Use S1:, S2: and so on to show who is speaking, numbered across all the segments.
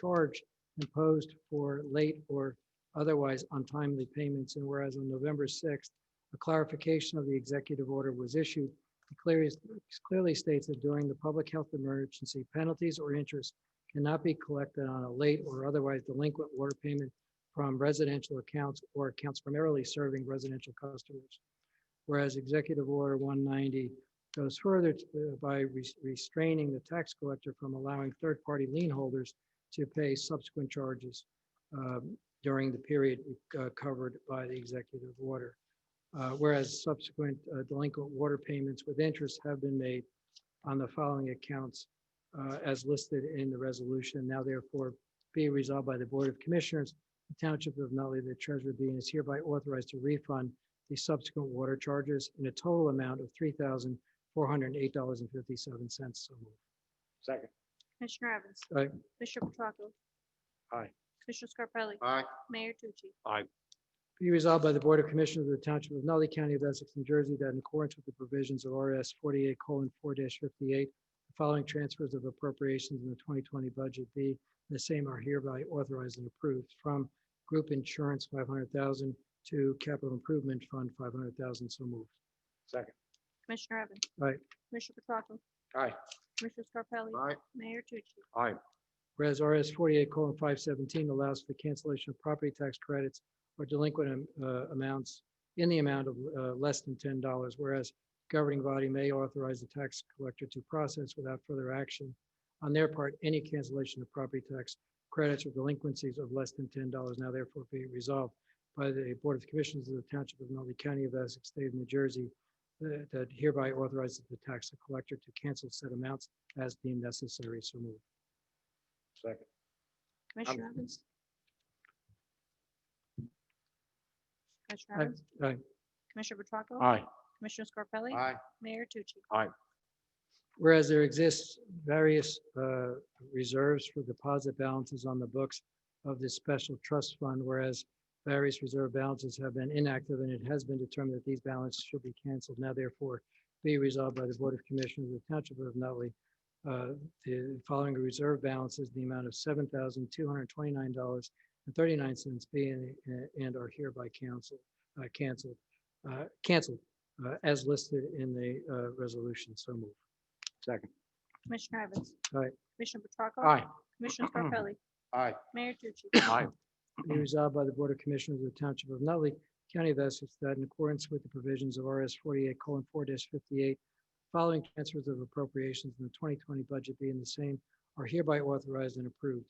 S1: charge imposed for late or otherwise untimely payments. And whereas on November 6th, a clarification of the executive order was issued. It clearly, clearly states that during the public health emergency, penalties or interest cannot be collected on a late or otherwise delinquent water payment from residential accounts or accounts primarily serving residential customers. Whereas Executive Order 190 goes further to- by res- restraining the tax collector from allowing third-party lien holders to pay subsequent charges um, during the period uh, covered by the executive order. Uh, Whereas subsequent uh, delinquent water payments with interest have been made on the following accounts uh, as listed in the resolution. Now therefore be resolved by the Board of Commissioners, the Township of Nutley, the Treasurer being is hereby authorized to refund the subsequent water charges in a total amount of three thousand four hundred and eight dollars and fifty-seven cents. So moved.
S2: Second.
S3: Commissioner Evans.
S1: Aye.
S3: Bishop Petracco.
S2: Aye.
S3: Commissioner Scarpelli.
S2: Aye.
S3: Mayor Tucci.
S1: Be resolved by the Board of Commissioners of the Township of Nutley County of Essex, New Jersey, that in accordance with the provisions of RS forty-eight four fifty-eight, the following transfers of appropriations in the twenty twenty budget be, the same are hereby authorized and approved from group insurance five hundred thousand to capital improvement fund five hundred thousand. So moved.
S2: Second.
S3: Commissioner Evans.
S1: Aye.
S3: Commissioner Petracco.
S2: Aye.
S3: Commissioner Scarpelli.
S2: Aye.
S3: Mayor Tucci.
S2: Aye.
S1: Whereas RS forty-eight five seventeen allows for the cancellation of property tax credits or delinquent am- uh, amounts in the amount of uh, less than ten dollars, whereas governing body may authorize the tax collector to process without further action on their part any cancellation of property tax credits or delinquencies of less than ten dollars now therefore be resolved by the Board of Commissioners of the Township of Nutley County of Essex, State of New Jersey, that that hereby authorizes the tax collector to cancel said amounts as deemed necessary. So moved.
S2: Second.
S3: Commissioner Evans. Commissioner
S1: Aye.
S3: Evans.
S1: Aye.
S3: Commissioner Petracco.
S2: Aye.
S3: Commissioner Scarpelli.
S2: Aye.
S3: Mayor Tucci.
S1: Whereas there exists various uh, reserves for deposit balances on the books of this special trust fund, whereas various reserve balances have been inactive and it has been determined that these balances should be canceled. Now therefore be resolved by the Board of Commissioners of the Township of Nutley. uh, The following reserve balances, in the amount of seven thousand two hundred twenty-nine dollars and thirty-nine cents being and are hereby canceled, uh, canceled, uh, canceled uh, as listed in the uh, resolution. So moved.
S2: Second.
S3: Commissioner Evans.
S1: Aye.
S3: Commissioner Petracco.
S2: Aye.
S3: Commissioner Scarpelli.
S2: Aye.
S3: Mayor Tucci.
S2: Aye.
S1: Be resolved by the Board of Commissioners of the Township of Nutley, County of Essex, that in accordance with the provisions of RS forty-eight four fifty-eight, following transfers of appropriations in the twenty twenty budget being the same are hereby authorized and approved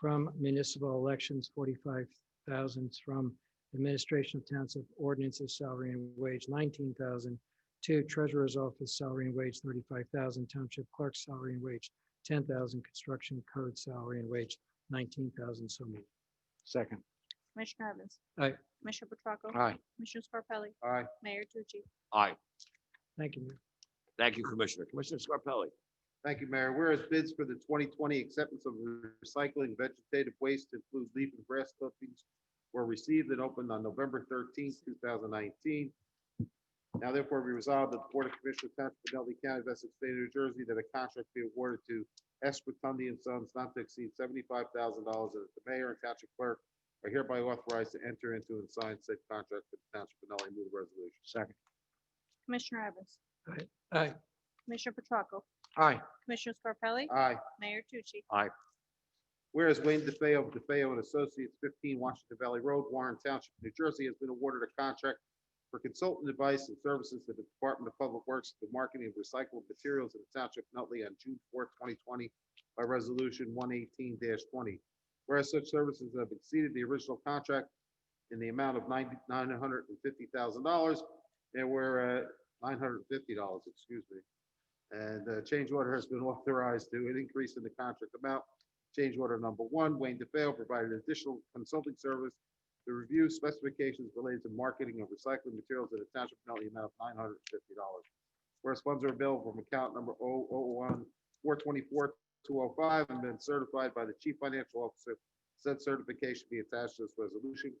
S1: from municipal elections, forty-five thousands from administration of township ordinances, salary and wage, nineteen thousand to treasurer's office, salary and wage, thirty-five thousand, township clerk's salary and wage, ten thousand, construction code salary and wage, nineteen thousand, so moved.
S2: Second.
S3: Commissioner Evans.
S1: Aye.
S3: Commissioner Petracco.
S2: Aye.
S3: Commissioner Scarpelli.
S2: Aye.
S3: Mayor Tucci.
S4: Aye.
S1: Thank you, Mayor.
S4: Thank you, Commissioner. Commissioner Scarpelli.
S2: Thank you, Mayor. Whereas bids for the 2020 acceptance of recycling vegetative waste to include leaf and grass clippings were received and opened on November 13th, 2019. Now therefore be resolved that the Board of Commissioners Township of Nutley County of Essex State of New Jersey that a contract be awarded to S. Rotundi and Sons not to exceed $75,000 and that the mayor and township clerk are hereby authorized to enter into and sign said contract for the Township of Nutley. Move the resolution. Second.
S3: Commissioner Evans.
S1: Aye.
S3: Commissioner Petracco.
S2: Aye.
S3: Commissioner Scarpelli.
S2: Aye.
S3: Mayor Tucci.
S2: Whereas Wayne DeFeo of DeFeo and Associates, 15 Washington Valley Road, Warren Township, New Jersey, has been awarded a contract for consultant advice and services to the Department of Public Works, for the marketing of recycled materials in the Township of Nutley on June 4, 2020, by Resolution 118-20. Whereas such services have exceeded the original contract in the amount of 90 $950,000, there were uh, $950, excuse me. And uh, change order has been authorized to an increase in the contract amount Change order number one, Wayne DeFeo provided additional consulting service to review specifications related to marketing of recycling materials at a township penalty amount of nine hundred and fifty dollars. Whereas funds are available from account number 001 205 and been certified by the chief financial officer. Said certification be attached to this resolution.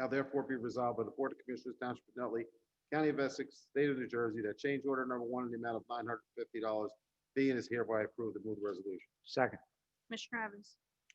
S2: Now therefore be resolved by the Board of Commissioners Township of Nutley, County of Essex, State of New Jersey, that change order number one in the amount of nine hundred and fifty dollars be and is hereby approved. The move the resolution. Second.
S3: Commissioner Evans.